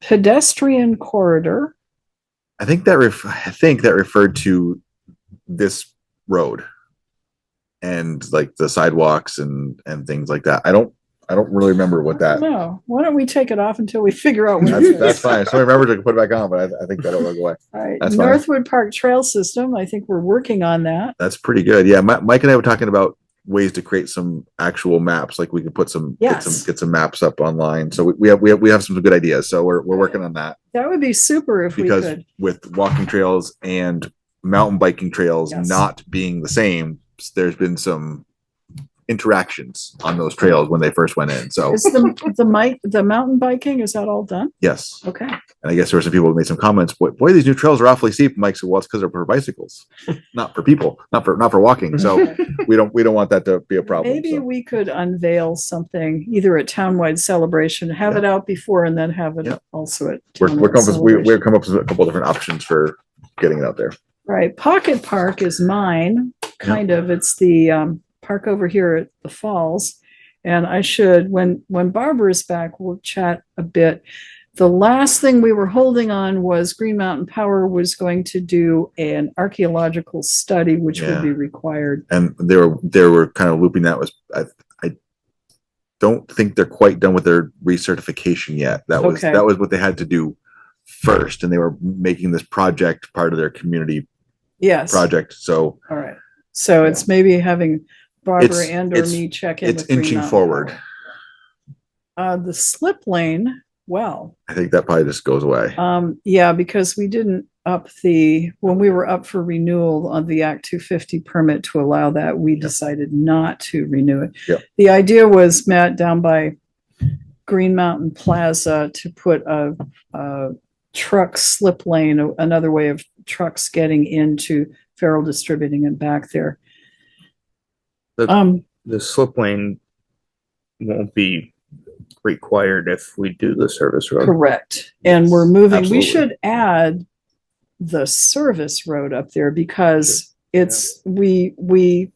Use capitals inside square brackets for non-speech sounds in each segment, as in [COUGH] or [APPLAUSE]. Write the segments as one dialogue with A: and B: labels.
A: pedestrian corridor.
B: I think that ref- I think that referred to this road and like the sidewalks and and things like that. I don't I don't really remember what that.
A: No, why don't we take it off until we figure out what it
B: That's, that's
A: is?
B: fine. So I remember to put it back on, but I, I think that'll go away.
A: All right,
B: that's fine.
A: Northwood Park Trail System, I think we're working on that.
B: That's pretty good. Yeah, Mi- Mike and I were talking about ways to create some actual maps. Like we could put some get
A: Yes.
B: some get some maps up online. So we, we have we have we have some good ideas. So we're we're working on that
A: That would be super if we
B: because
A: could.
B: with walking trails and mountain biking trails
A: Yes.
B: not being the same, s- there's been some interactions on those trails when they first went in. So
A: Is the, the mic, the mountain biking, is that all done?
B: yes,
A: Okay.
B: and I guess there were some people who made some comments. Boy, boy these new trails are awfully steep. Mike said, "Well, it's because they're
A: [LAUGHS]
B: for bicycles, not for people, not for not for walking." So we don't we don't want that to be a problem.
A: Maybe
B: so.
A: we could unveil something, either a townwide celebration, have it out before and then have it
B: Yeah.
A: also at.
B: we're, we're
A: townwide
B: come up with, we, we're
A: celebration.
B: come up with a couple different options for getting it out there.
A: Right, Pocket Park is mine, kind of. It's the um park over here at the falls. And I should, when when Barbara's back, we'll chat a bit. The last thing we were holding on was Green Mountain Power was going to do an archaeological study, which would
B: Yeah.
A: be required.
B: And they were, they were kind of looping that was, I, I don't think they're quite done with their recertification yet. That was,
A: Okay.
B: that was what they had to do first. And they were making this project part of their community
A: Yes, all
B: project. So
A: right. So it's maybe having Barbara
B: It's-
A: and or
B: it's-
A: me check in.
B: it's
A: with Green
B: inching
A: Mountain
B: forward.
A: Power. Uh, the slip lane, well.
B: I think that probably just goes away.
A: Um, yeah, because we didn't up the, when we were up for renewal on the Act two fifty permit to allow that, we decided not to renew it.
B: Yep.
A: The idea was, Matt, down by Green Mountain Plaza to put a, a truck slip lane, a- another way of trucks getting into Farrell Distributing and back there.
C: The-
A: Um,
C: the slip lane won't be required if we do the service road.
A: Correct. And we're moving, we
B: absolutely.
A: should add the service road up there because it's, we, we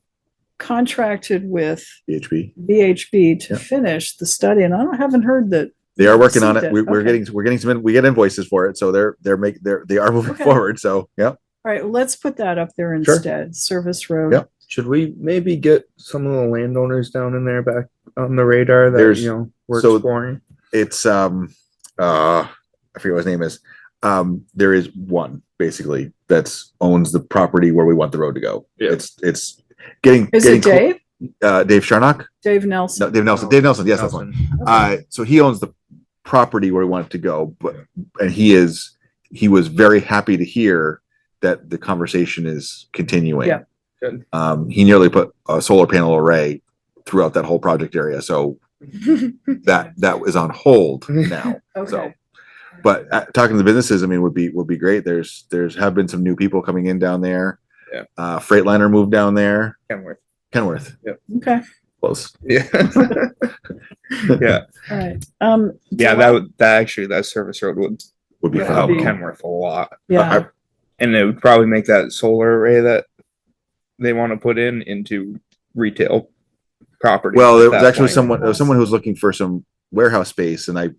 A: contracted with
B: BHP.
A: VHB to
B: Yeah.
A: finish the study and I don't- haven't heard that.
B: They are working on it.
A: Received
B: We,
A: it.
B: we're
A: Okay.
B: getting, we're getting some, in- we get invoices for it. So they're, they're make, they're, they are [LAUGHS] moving
A: Okay.
B: forward. So, yeah.
A: All right, let's put that up there
B: Sure.
A: instead, service road.
B: Yep.
C: Should we maybe get some of the landowners down in there back on the radar that,
B: There's-
C: you know, we're
B: so-
C: exploring?
B: it's um uh I forget what his name is. Um there is one basically that's owns the property where we want the road to go.
C: Yeah.
B: It's it's getting
A: Is
B: getting
A: it
B: clo-
A: Dave?
B: uh Dave Sharnock?
A: Dave [LAUGHS]
B: No,
A: Nelson?
B: Dave Nelson. Dave Nelson, yes, that's one.
C: Nelson.
B: Uh so he owns the property where we want it to go, but and he is he was very happy to hear that the conversation is continuing.
A: Yeah.
C: Good.
B: Um he nearly put a solar panel array throughout that whole project area. So that that is on
C: [LAUGHS]
B: hold now.
A: Okay.
B: So, but uh, talking to the businesses, I mean, would be, would be great. There's, there's have been some new people coming in down there.
C: Yeah.
B: Uh, Freightliner moved down there,
C: Kenworth.
B: Kenworth,
A: Okay,
B: close.
C: [LAUGHS] Yeah. Yeah,
A: all right. Um,
C: yeah, that would, that actually, that service road would
B: Would be
A: Yeah,
C: help
A: that'd
B: phenomenal.
C: Kenworth a lot.
A: yeah,
B: I-
C: And it would probably make that solar array that they want to put in into retail property.
B: Well, there
C: at
B: was
C: that
B: actually
C: point.
B: someone, there was someone who was looking for some warehouse space and I,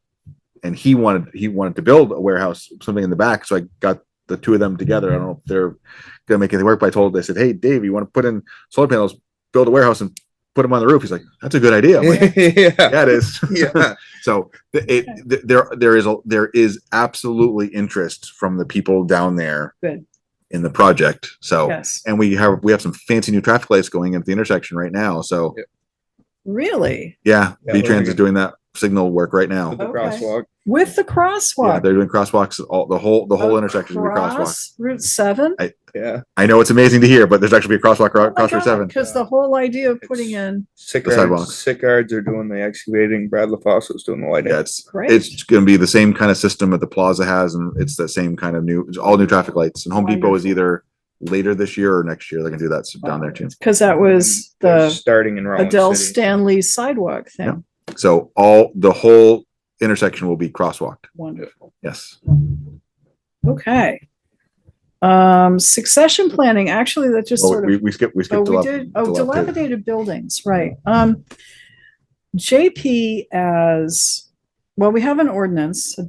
B: and he wanted, he wanted to build a warehouse, something in the back. So I got the two of them together. I don't know if they're gonna make anything work, but I told, I said, Hey, Dave, you want to put in solar panels, build a warehouse and put them on the roof? He's like, that's a good idea. I'm like,
C: [LAUGHS] Yeah,
B: yeah, it is.
C: [LAUGHS] yeah.
B: So th- it, th- there, there is, a there is absolutely interest from the people down there.
A: Good.
B: In the project, so,
A: yes.
B: and we have, we have some fancy new traffic lights going at the intersection right now, so,
C: Yeah.
A: Really?
B: yeah,
C: Yeah,
B: V-Trans
C: we're
B: is doing that signal work right now.
C: With the
A: Okay.
C: crosswalk.
A: With the
B: Yeah,
A: crosswalk?
B: they're doing crosswalks, all, the whole, the whole intersection will be crosswalk.
A: Across Route seven?
C: Yeah.
B: I know it's amazing to hear, but there's actually be a
A: Oh
B: crosswalk, acro- across Route seven.
A: Because the whole idea of putting
C: It's-
A: in,
B: sidewalk.
C: Sickards, Sickards are doing the excavating. Brad LaFosso's doing the lighting.
B: Yeah, it's,
A: great.
B: it's gonna be the same kind of system that the plaza has, and it's the same kind of new, it's all new traffic lights, and Home Depot is
A: Wonderful.
B: either later this year or next year, they're gonna do that s- down there too.
A: Because that was
C: They're
A: the
C: starting in Rollins
A: Adele
C: City.
A: Stanley sidewalk thing.
B: So all, the whole intersection will be crosswalked.
A: Wonderful.
B: Yes.
A: Okay. Um, succession planning, actually, that just
B: Oh,
A: sort
B: we,
A: of,
B: we skipped, we
A: oh,
B: skipped.
A: we
B: dilap-
A: did, oh,
B: dilapid-
A: dilapidated buildings, right. Um, JP as, well, we have an ordinance, a